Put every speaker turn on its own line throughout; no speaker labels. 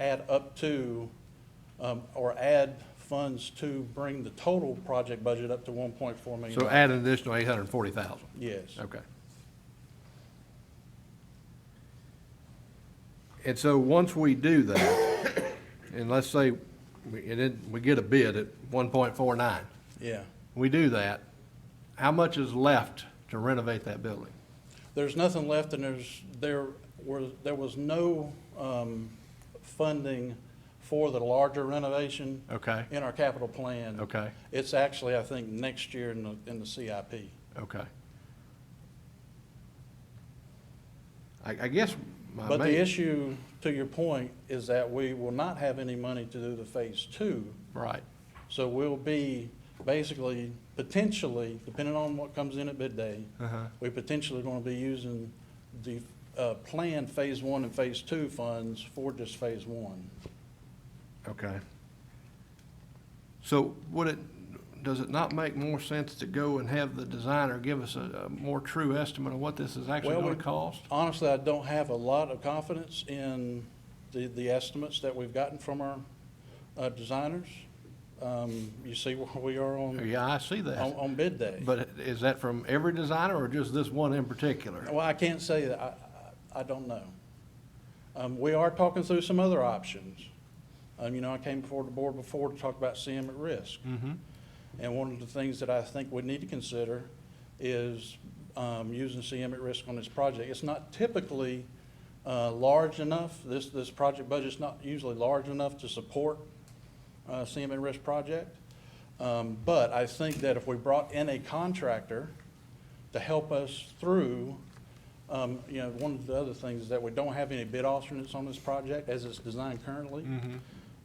add up to, um, or add funds to bring the total project budget up to one point four million.
So add an additional eight hundred and forty thousand?
Yes.
Okay. And so, once we do that, and let's say, we, and then we get a bid at one point four nine,
Yeah.
we do that, how much is left to renovate that building?
There's nothing left, and there's, there were, there was no um, funding for the larger renovation.
Okay.
In our capital plan.
Okay.
It's actually, I think, next year in the, in the CIP.
Okay. I, I guess my
But the
main-
issue, to your point, is that we will not have any money to do the phase two.
Right,
So we'll be basically, potentially, depending on what comes in at bid day,
Uh-huh.
we potentially gonna be using the uh, planned phase one and phase two funds for just phase one.
okay. So would it, does it not make more sense to go and have the designer give us a, a more true estimate of what this is actually
Well,
gonna
we-
cost?
Honestly, I don't have a lot of confidence in the, the estimates that we've gotten from our uh, designers. Um, You see where we Oh, are on,
Yeah, I see
on,
that.
on bid day.
But is that from every designer or just this one in particular?
Well, I can't say that, I, I I don't know. Um, We are talking through some other options. Um, You know, I came before the board before to talk about CM at risk.
Mm-hmm.
And one of the things that I think we need to consider is um, using CM at risk on this project. It's not typically uh, large enough, this, this project budget's not usually large enough to support uh, CM at risk project. Um, But I think that if we brought in a contractor to help us through, um, you know, one of the other things is that we don't have any bid alternates on this project as it's designed currently.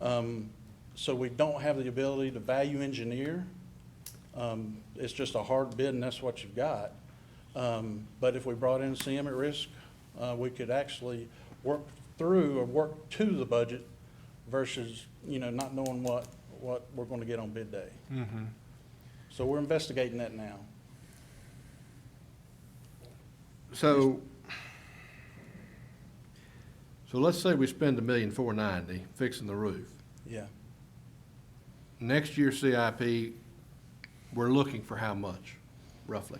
Um, So we don't have the ability to value engineer. Um, It's just a hard bid and that's what you've got. Um, But if we brought in CM at risk, uh, we could actually work through or work to the budget versus, you know, not knowing what, what we're going to get on bid day. So we're investigating that now.
So, so let's say we spend a million four ninety fixing the roof.
Yeah.
Next year CIP, we're looking for how much, roughly?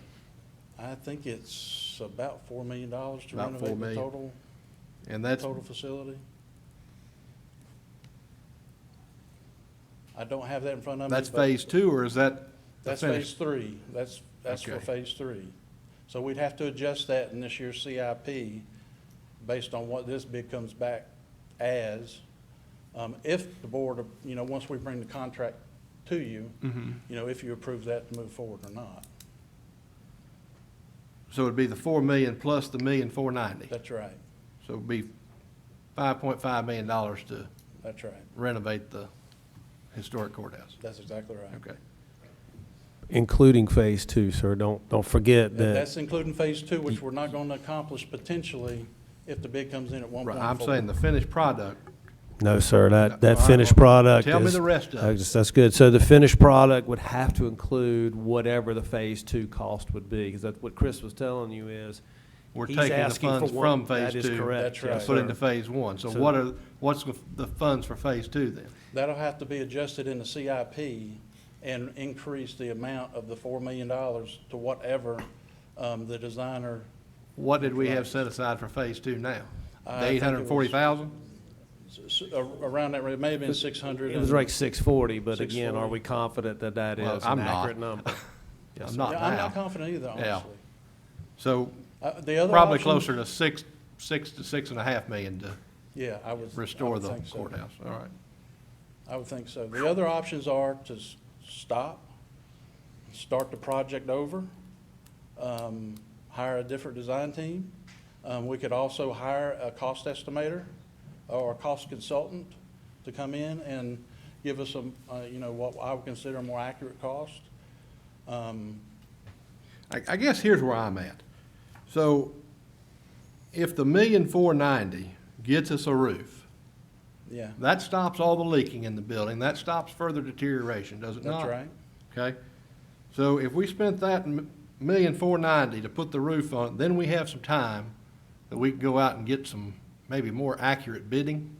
I think it's about $4 million to
About four
renovate the
million.
total,
And that's,
total facility. I don't have that in front of me.
that's
but-
phase two, or is that the
That's
finish?
phase three. That's, that's for
Okay.
phase three. So we'd have to adjust that in this year's CIP based on what this bid comes back as. Um, if the board, you know, once we bring the contract to you,
Mm-hmm.
you know, if you approve that to move forward or not.
So it'd be the four million plus the million four ninety.
That's right.
So it'd be five point five million dollars to
That's right.
renovate the historic courthouse.
That's exactly right.
Okay.
Including phase two, sir. Don't, don't forget
And
that.
That's including phase two, which we're not going to accomplish potentially if the bid comes in at one
Right,
point
I'm saying the finished product,
No, sir, that,
All right,
that finished
well,
product
tell me
is-
the rest of it.
that's- That's good. So the finished product would have to include whatever the phase two cost would be, because that's what Chris was telling you is.
we're
he's
taking the
asking for
funds
one-
from phase two.
That is correct.
That's
yes,
right.
And put into
sir.
phase one. So
So-
what are, what's the- the funds for phase two then?
That'll have to be adjusted in the CIP and increase the amount of the $4 million to whatever um, the designer,
What did we have set aside for phase two now?
I
The
think
eight
it
hundred and forty thousand?
s- s- a- around that, it may have been 600.
It was like six forty, but again, are
640.
we confident that that
Well,
is
I'm
an
not.
accurate number? Yes,
I'm
sir.
not
Yeah, I'm not
now.
confident either,
Yeah.
honestly.
So
Uh, The other
probably
option-
closer to six, six to six and a half million to
Yeah, I would. I
restore
would
the
think so.
courthouse. All right.
I would think so. The other options are to s- stop, start the project over, um, hire a different design team. Um, We could also hire a cost estimator or a cost consultant to come in and give us some, uh, you know, what I would consider a more accurate cost. Um,
I, I guess here's where I'm at. So if the million four ninety gets us a roof,
Yeah,
that stops all the leaking in the building. That stops further deterioration, does it not?
that's right.
Okay? So if we spent that m- million four ninety to put the roof on, then we have some time that we can go out and get some maybe more accurate bidding